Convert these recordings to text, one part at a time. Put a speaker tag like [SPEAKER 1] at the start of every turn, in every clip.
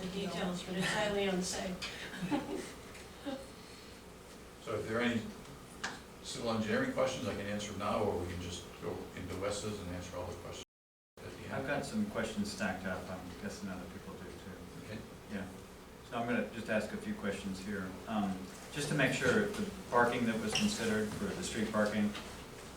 [SPEAKER 1] the details, but it's highly unsafe.
[SPEAKER 2] So if there are any civil engineering questions, I can answer them now, or we can just go into Wes's and answer all the questions at the
[SPEAKER 3] I've
[SPEAKER 2] end.
[SPEAKER 3] got some questions stacked up, I'm guessing other people do too.
[SPEAKER 2] Okay.
[SPEAKER 3] Yeah, so I'm gonna just ask a few questions here. Um, Just to make sure, the parking that was considered for the street parking,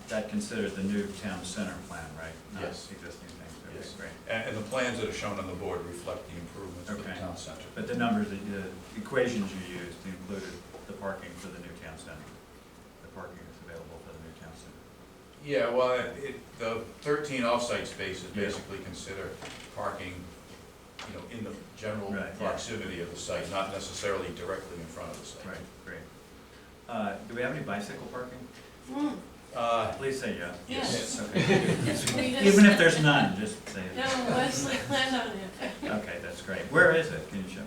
[SPEAKER 3] that considered the new town center plan, right? Not
[SPEAKER 2] Yes.
[SPEAKER 3] Existing things,
[SPEAKER 2] Yes.
[SPEAKER 3] okay, great.
[SPEAKER 2] And, and the plans that are shown on the board reflect the improvements to the
[SPEAKER 3] Okay.
[SPEAKER 2] town center.
[SPEAKER 3] But the numbers, that you- the equations you used included the parking for the new town center, the parking that's available for the new town center.
[SPEAKER 2] Yeah, well, it, the thirteen off-site spaces
[SPEAKER 3] Yeah.
[SPEAKER 2] basically consider parking, you know, in the general
[SPEAKER 3] Right, yeah.
[SPEAKER 2] proximity of the site, not necessarily directly in front of the site.
[SPEAKER 3] Right, great. Uh, Do we have any bicycle parking?
[SPEAKER 1] Hmm,
[SPEAKER 2] Uh,
[SPEAKER 3] Please say yes.
[SPEAKER 1] Yes.
[SPEAKER 3] Okay.
[SPEAKER 1] we just-
[SPEAKER 3] Even if there's none, just say it.
[SPEAKER 1] No, Wesley planned on it.
[SPEAKER 3] Okay, that's great. Where is it? Can you show?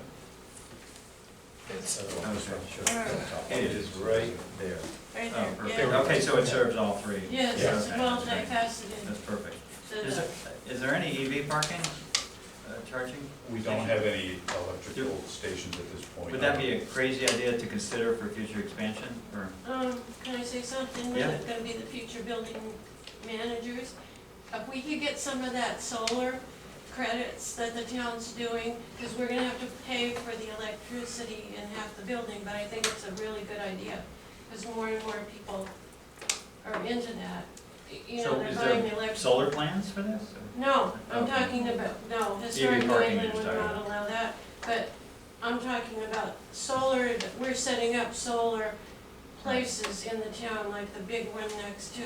[SPEAKER 2] it's, uh,
[SPEAKER 4] It is right there.
[SPEAKER 1] Right
[SPEAKER 3] Oh,
[SPEAKER 1] there,
[SPEAKER 3] perfect.
[SPEAKER 1] yeah.
[SPEAKER 3] Okay, so it serves all three.
[SPEAKER 1] Yes,
[SPEAKER 2] Yeah.
[SPEAKER 1] it's
[SPEAKER 3] Okay,
[SPEAKER 1] well
[SPEAKER 3] that's great.
[SPEAKER 1] multifaceted.
[SPEAKER 3] That's perfect.
[SPEAKER 1] So
[SPEAKER 3] Is
[SPEAKER 1] the-
[SPEAKER 3] there, is there any EV parking, uh, charging?
[SPEAKER 2] We don't have any electrical stations at this point.
[SPEAKER 3] Would that be a crazy idea to consider for future expansion, or?
[SPEAKER 1] Um, can I say something?
[SPEAKER 3] Yeah.
[SPEAKER 1] We're gonna be the future building managers. If we could get some of that solar credits that the town's doing, because we're gonna have to pay for the electricity in half the building, but I think it's a really good idea, because more and more people are into that. You know,
[SPEAKER 3] So
[SPEAKER 1] they're
[SPEAKER 3] is
[SPEAKER 1] buying
[SPEAKER 3] there
[SPEAKER 1] the electric.
[SPEAKER 3] solar plans for this?
[SPEAKER 1] No, I'm
[SPEAKER 3] Okay.
[SPEAKER 1] talking about, no, historic New
[SPEAKER 3] parking
[SPEAKER 1] England
[SPEAKER 3] is
[SPEAKER 1] would
[SPEAKER 3] tied
[SPEAKER 1] not
[SPEAKER 3] up.
[SPEAKER 1] allow that, but I'm talking about solar, that we're setting up solar places in the town, like the big one next to,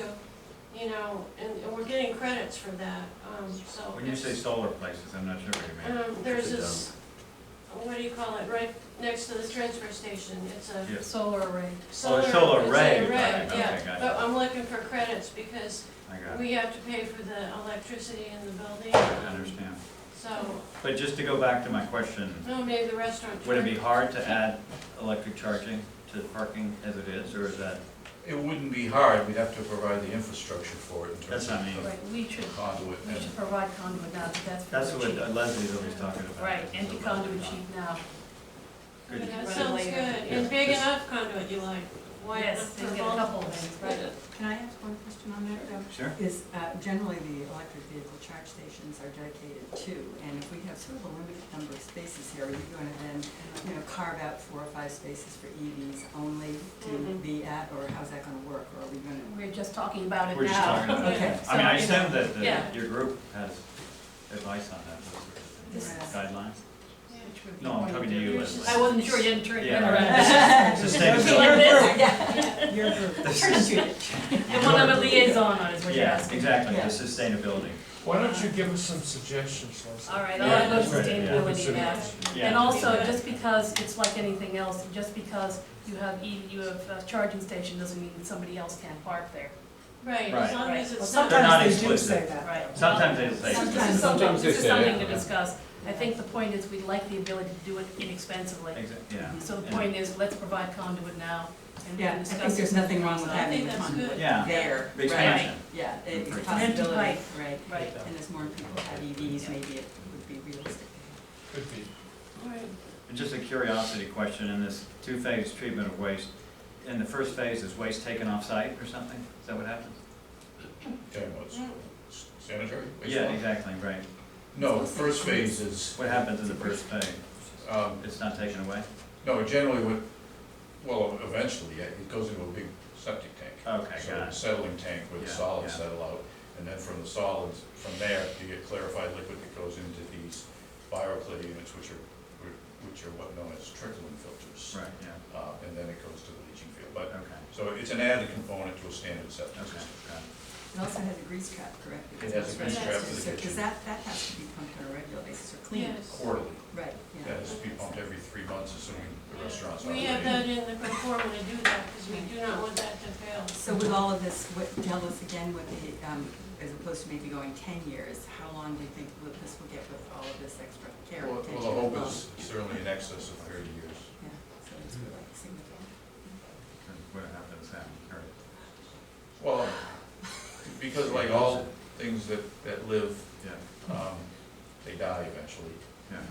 [SPEAKER 1] you know, and and we're getting credits for that, um, so.
[SPEAKER 3] When you say
[SPEAKER 1] it's-
[SPEAKER 3] solar places, I'm not sure what you mean.
[SPEAKER 1] Um, there's this, what do you call it, right next to the transfer station, it's a
[SPEAKER 3] Yes,
[SPEAKER 5] solar array.
[SPEAKER 1] solar.
[SPEAKER 3] solar
[SPEAKER 1] it's an
[SPEAKER 3] array, right, okay,
[SPEAKER 1] Yeah,
[SPEAKER 3] got
[SPEAKER 1] but
[SPEAKER 3] it.
[SPEAKER 1] I'm looking for credits because
[SPEAKER 3] I got it,
[SPEAKER 1] we have to pay for the electricity in the building,
[SPEAKER 3] I understand.
[SPEAKER 1] so.
[SPEAKER 3] But just to go back to my question,
[SPEAKER 1] No, Oh, maybe the restaurant.
[SPEAKER 3] would it be hard to add electric charging to the parking as it is, or is that,
[SPEAKER 2] It wouldn't be hard, we'd have to provide the infrastructure for it in terms
[SPEAKER 3] That's what I mean.
[SPEAKER 2] of
[SPEAKER 5] Right, we should,
[SPEAKER 2] conduit
[SPEAKER 5] we
[SPEAKER 2] and
[SPEAKER 5] should provide conduit now, but that's.
[SPEAKER 3] that's
[SPEAKER 5] for
[SPEAKER 3] what
[SPEAKER 5] cheap.
[SPEAKER 3] Leslie's always talking about.
[SPEAKER 5] Right, empty conduit cheap now.
[SPEAKER 3] Good.
[SPEAKER 1] That
[SPEAKER 5] Right.
[SPEAKER 1] sounds good, and big enough conduit you like, wide
[SPEAKER 5] Yes,
[SPEAKER 1] enough
[SPEAKER 5] they
[SPEAKER 1] for
[SPEAKER 5] get a
[SPEAKER 1] both.
[SPEAKER 5] couple of things, right?
[SPEAKER 6] Can I ask one question on that? though?
[SPEAKER 3] Sure.
[SPEAKER 6] Is, uh, generally, the electric vehicle charge stations are dedicated to, and if we have sort of a limited number of spaces here, are you gonna then, you know, carve out four or five spaces for EVs only to
[SPEAKER 1] Mhm.
[SPEAKER 6] be at, or how's that gonna work, or are we gonna?
[SPEAKER 5] We're just talking about it now.
[SPEAKER 3] We're just talking about it.
[SPEAKER 6] Okay.
[SPEAKER 3] I mean, I
[SPEAKER 5] So, you know,
[SPEAKER 3] assume that,
[SPEAKER 5] yeah.
[SPEAKER 3] that your group has advice on that, those sort of
[SPEAKER 5] This-
[SPEAKER 3] things, guidelines?
[SPEAKER 5] which would be
[SPEAKER 3] No, I'm
[SPEAKER 5] one
[SPEAKER 3] talking
[SPEAKER 5] of
[SPEAKER 3] to you,
[SPEAKER 5] the-
[SPEAKER 3] Leslie.
[SPEAKER 5] I wasn't sure you didn't turn it
[SPEAKER 3] Yeah,
[SPEAKER 5] around.
[SPEAKER 3] It's a state of-
[SPEAKER 5] Your group.
[SPEAKER 6] Yeah, your group.
[SPEAKER 5] The one I'm a liaison on is what you're
[SPEAKER 3] Yeah,
[SPEAKER 5] asking.
[SPEAKER 3] exactly, the
[SPEAKER 6] Yeah.
[SPEAKER 3] sustainability.
[SPEAKER 7] Why don't you give us some suggestions,
[SPEAKER 5] All
[SPEAKER 7] Leslie?
[SPEAKER 5] right, I'll have those
[SPEAKER 3] Right, yeah.
[SPEAKER 5] sustainability now.
[SPEAKER 3] Yeah.
[SPEAKER 5] And also, just because, it's like anything else, just because you have, E- you have a charging station doesn't mean that somebody else can't park there.
[SPEAKER 1] Right,
[SPEAKER 3] Right.
[SPEAKER 1] as long as
[SPEAKER 5] Right.
[SPEAKER 1] it's
[SPEAKER 5] Well,
[SPEAKER 1] not.
[SPEAKER 3] They're not
[SPEAKER 6] Sometimes they do
[SPEAKER 3] explicit.
[SPEAKER 6] say that.
[SPEAKER 5] Right.
[SPEAKER 3] Sometimes they say.
[SPEAKER 5] This is something,
[SPEAKER 4] Sometimes they
[SPEAKER 5] this is
[SPEAKER 4] say
[SPEAKER 5] something to
[SPEAKER 4] that.
[SPEAKER 5] discuss. I think the point is, we like the ability to do it inexpensively.
[SPEAKER 3] Exa- Yeah.
[SPEAKER 5] So the
[SPEAKER 3] and-
[SPEAKER 5] point is, let's provide conduit now, and we
[SPEAKER 6] Yeah,
[SPEAKER 5] can
[SPEAKER 6] I
[SPEAKER 5] discuss.
[SPEAKER 6] think there's
[SPEAKER 5] it.
[SPEAKER 6] nothing wrong with
[SPEAKER 1] I think
[SPEAKER 6] having a
[SPEAKER 1] that's
[SPEAKER 6] conduit
[SPEAKER 1] good.
[SPEAKER 3] Yeah,
[SPEAKER 6] there.
[SPEAKER 3] the expansion.
[SPEAKER 6] Right, Yeah, it's a
[SPEAKER 3] Right.
[SPEAKER 6] possibility,
[SPEAKER 5] Right.
[SPEAKER 6] right,
[SPEAKER 5] Right,
[SPEAKER 6] and as more people have EVs, maybe it would be realistic.
[SPEAKER 7] Could be.
[SPEAKER 1] Right.
[SPEAKER 3] And Just a curiosity question, in this two-phase treatment of waste, in the first phase, is waste taken off-site or something? Is that what happens?
[SPEAKER 2] Talking about s- sanitary wastewater?
[SPEAKER 3] Yeah, exactly, right.
[SPEAKER 2] No, the first phase is,
[SPEAKER 3] What happens in the first phase?
[SPEAKER 2] um,
[SPEAKER 3] It's not taken away?
[SPEAKER 2] no, generally what, well, eventually, yeah, it goes into a big septic tank.
[SPEAKER 3] Okay,
[SPEAKER 2] So
[SPEAKER 3] Oh, got
[SPEAKER 2] a
[SPEAKER 3] it.
[SPEAKER 2] settling tank where the
[SPEAKER 3] Yeah,
[SPEAKER 2] solids
[SPEAKER 3] yeah.
[SPEAKER 2] settle out, and then from the solids, from there, you get clarified liquid that goes into these bioclid units, which are, which are what known as trickling filters.
[SPEAKER 3] Right, yeah,
[SPEAKER 2] Uh, and then it goes to the leaching field, but
[SPEAKER 3] okay,
[SPEAKER 2] So it's an added component to a standard septic
[SPEAKER 3] okay,
[SPEAKER 2] system.
[SPEAKER 3] got it.
[SPEAKER 6] It also has a grease trap, correct?
[SPEAKER 2] It has a grease trap for the
[SPEAKER 6] Because
[SPEAKER 2] kitchen.
[SPEAKER 6] that, that has to be pumped on a regular basis or cleaned.
[SPEAKER 1] Yes.
[SPEAKER 2] Quarterly,
[SPEAKER 6] Right, yeah.
[SPEAKER 2] that has to be pumped every three months, assuming the restaurant's
[SPEAKER 1] We have that
[SPEAKER 2] operating.
[SPEAKER 1] in the conform to do that, because we do not want that to fail.
[SPEAKER 6] So with all of this, what, tell us again what the, um, as opposed to maybe going ten years, how long do you think will- this will get with all of this extra care?
[SPEAKER 2] Well, well,
[SPEAKER 6] and
[SPEAKER 2] the
[SPEAKER 6] attention
[SPEAKER 2] hope
[SPEAKER 6] involved?
[SPEAKER 2] is certainly in excess of thirty years.
[SPEAKER 6] Yeah, so it's really significant.
[SPEAKER 3] What happens then? All right.
[SPEAKER 2] Well, because like all things that, that live,
[SPEAKER 3] Yeah,
[SPEAKER 2] um, they die eventually.
[SPEAKER 3] yeah.